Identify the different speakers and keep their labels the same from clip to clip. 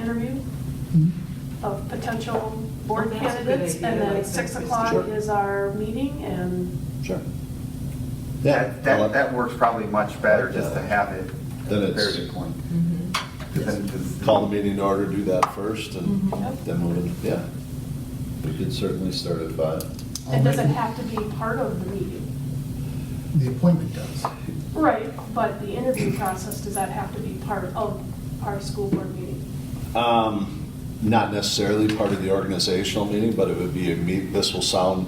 Speaker 1: interview of potential board
Speaker 2: Oh, that's a good
Speaker 1: candidates, and
Speaker 2: idea,
Speaker 1: then
Speaker 2: like
Speaker 1: six
Speaker 2: that.
Speaker 1: o'clock
Speaker 3: Sure.
Speaker 1: is our meeting, and
Speaker 3: Sure. Yeah.
Speaker 4: That, that, that works probably much better just to have it at
Speaker 3: Then
Speaker 4: the
Speaker 3: it's-
Speaker 4: parity point.
Speaker 2: Mhm.
Speaker 4: 'Cause then- 'cause-
Speaker 3: Call the meeting to order, do that first, and
Speaker 4: Mm-hmm.
Speaker 1: Yep.
Speaker 3: then we'll, yeah. We could certainly start at five.
Speaker 1: it doesn't have to be part of the meeting.
Speaker 5: The appointment does.
Speaker 1: Right, but the interview process, does that have to be part of our school board meeting?
Speaker 3: Um, Not necessarily part of the organizational meeting, but it would be a meet, this will sound,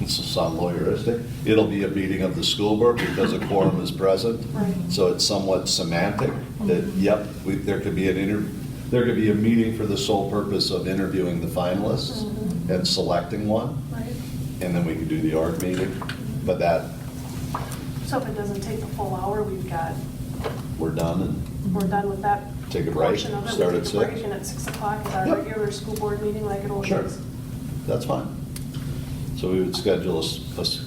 Speaker 3: this will sound lawyeristic. It'll be a meeting of the school board because a quorum is present.
Speaker 1: Right.
Speaker 3: So it's somewhat semantic that,
Speaker 4: Mm-hmm.
Speaker 3: yep, we, there could be an inter, there could be a meeting for the sole purpose of interviewing the finalists
Speaker 4: Mm-hmm.
Speaker 1: Mhm.
Speaker 3: and selecting one,
Speaker 1: Right.
Speaker 3: and then we could do the org meeting. But that,
Speaker 1: So if it doesn't take the full hour, we've got,
Speaker 3: we're done and
Speaker 1: we're done with that
Speaker 3: Take a break,
Speaker 1: portion of it. We
Speaker 3: start
Speaker 1: take
Speaker 3: at
Speaker 1: a break,
Speaker 3: six.
Speaker 1: And at six o'clock is our
Speaker 3: Yep.
Speaker 1: regular school board meeting like it always
Speaker 3: Sure.
Speaker 1: is.
Speaker 3: That's fine. So we would schedule a, s- a s-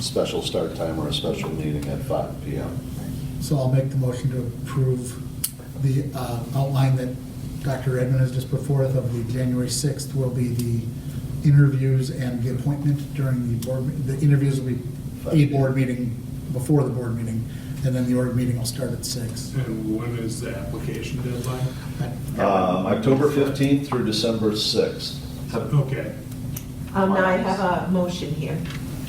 Speaker 3: special start time or a special meeting at five PM.
Speaker 5: So I'll make the motion to approve the uh, outline that Dr. Edmund has just put forth of the January 6th will be the interviews and the appointment during the board, me- the interviews will be a board meeting before the board meeting, and then the org meeting will start at six.
Speaker 6: And when is the application deadline?
Speaker 3: Uh, October fifteenth through December sixth.
Speaker 4: so-
Speaker 6: Okay,
Speaker 2: Um, now I have a motion here.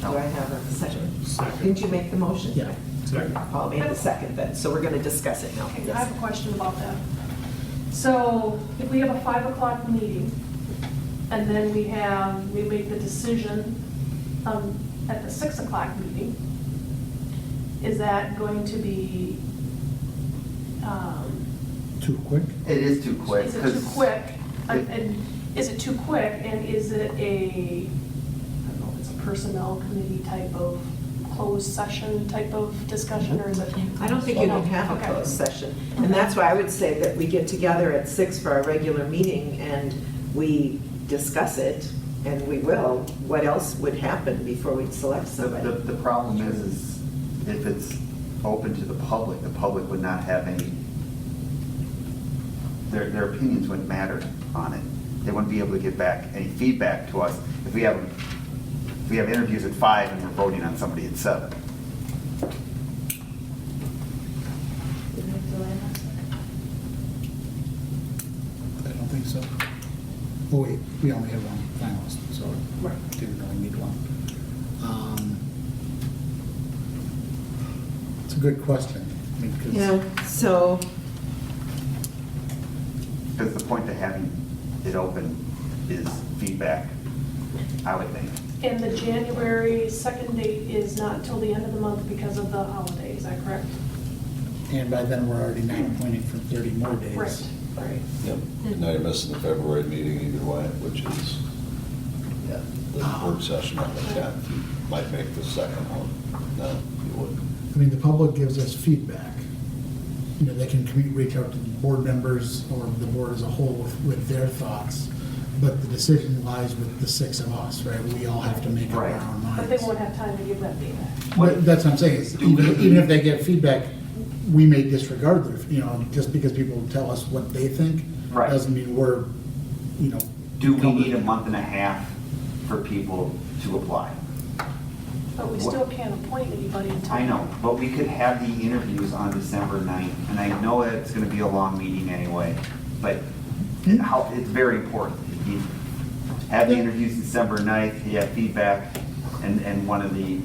Speaker 2: Do I have a second?
Speaker 6: Second.
Speaker 2: Didn't you make the motion?
Speaker 5: Yeah.
Speaker 6: Second.
Speaker 2: Paul made the second then, so we're gonna discuss it now.
Speaker 1: Okay, I have a question about that. So if we have a five o'clock meeting, and then we have, we make the decision um, at the six o'clock meeting, is that going to be, um,
Speaker 5: Too quick?
Speaker 4: It is too quick.
Speaker 1: is it too
Speaker 4: 'cause-
Speaker 1: quick? And-
Speaker 4: it-
Speaker 1: And is it too quick, and is it a, I don't know, if it's a personnel committee type of closed session type of discussion, or is it?
Speaker 2: I don't think you can have a
Speaker 1: Okay.
Speaker 2: closed session. And that's why I would say that we get together at six for our regular meeting and we discuss it, and we will, what else would happen before we select
Speaker 4: The, the,
Speaker 2: somebody.
Speaker 4: the problem is, is if it's open to the public, the public would not have any, their, their opinions wouldn't matter on it. They wouldn't be able to give back any feedback to us if we have, if we have interviews at five and we're voting on somebody at seven.
Speaker 5: I don't think so. Oh, wait, we only have one finalist, so we didn't really need one. Um, It's a good question. I mean, 'cause-
Speaker 2: Yeah, so,
Speaker 4: Because the point to having it open is feedback, I would think.
Speaker 1: And the January 2nd date is not till the end of the month because of the holiday, is that correct?
Speaker 5: And by then, we're already not appointing for 30 more days.
Speaker 1: Right, right.
Speaker 3: Yep. And now you're missing the February meeting either way, which is, yeah, the work session on the tenth. You Might make the second one. No, you wouldn't.
Speaker 5: I mean, the public gives us feedback. You know, they can commu- reach out to the board members or the board as a whole with- with their thoughts, but the decision lies with the six of us, right? We all have to make up our
Speaker 4: Right.
Speaker 5: own minds.
Speaker 1: But they won't have time to give that data.
Speaker 5: But That's what I'm saying, is even even if they get feedback, we may disregard their, you know, just because people tell us what they think,
Speaker 4: Right.
Speaker 5: doesn't mean we're, you know.
Speaker 4: Do we need a month and a half for people to apply?
Speaker 1: But we still can't appoint anybody until.
Speaker 4: I know, but we could have the interviews on December 9th, and I know that it's gonna be a long meeting anyway, but how, it's very important. You Have the interviews December 9th, you have feedback, and, and one of the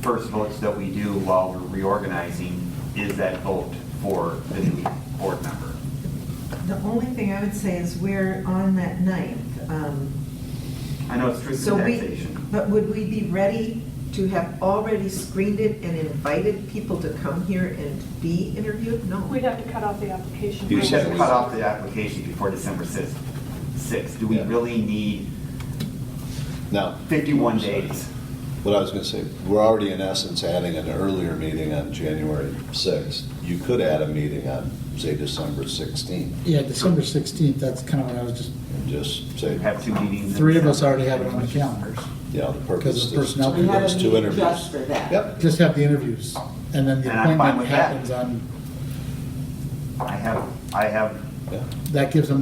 Speaker 4: first votes that we do while we're reorganizing is that vote for the new board member.
Speaker 2: the only thing I would say is we're on that ninth, um,
Speaker 4: I know it's strict
Speaker 2: So we,
Speaker 4: taxation.
Speaker 2: but would we be ready to have already screened it and invited people to come here and be interviewed? No.
Speaker 1: We'd have to cut off the application.
Speaker 3: You
Speaker 4: We should
Speaker 3: said-
Speaker 4: cut off the application before December 6th. 6th, do we
Speaker 3: Yeah.
Speaker 4: really need
Speaker 3: Now,
Speaker 4: 51 days?
Speaker 3: What I was going to say, we're already in essence adding an earlier meeting on January 6th. You could add a meeting on, say, December 16th,
Speaker 5: Yeah, December 16th, that's kind of what I was just
Speaker 3: and just say,
Speaker 4: Have two meetings? in
Speaker 5: Three of us
Speaker 4: December.
Speaker 5: already have it on the calendars.
Speaker 3: you know, the
Speaker 5: Because of
Speaker 3: purpose is
Speaker 5: personnel.
Speaker 3: to do
Speaker 5: We had
Speaker 3: those two interviews.
Speaker 2: that.
Speaker 3: Yep,
Speaker 5: Just have the interviews, and then the
Speaker 4: And I'm fine
Speaker 5: appointment
Speaker 4: with that.
Speaker 5: happens on,
Speaker 4: I have, I have
Speaker 3: yeah.
Speaker 5: that gives them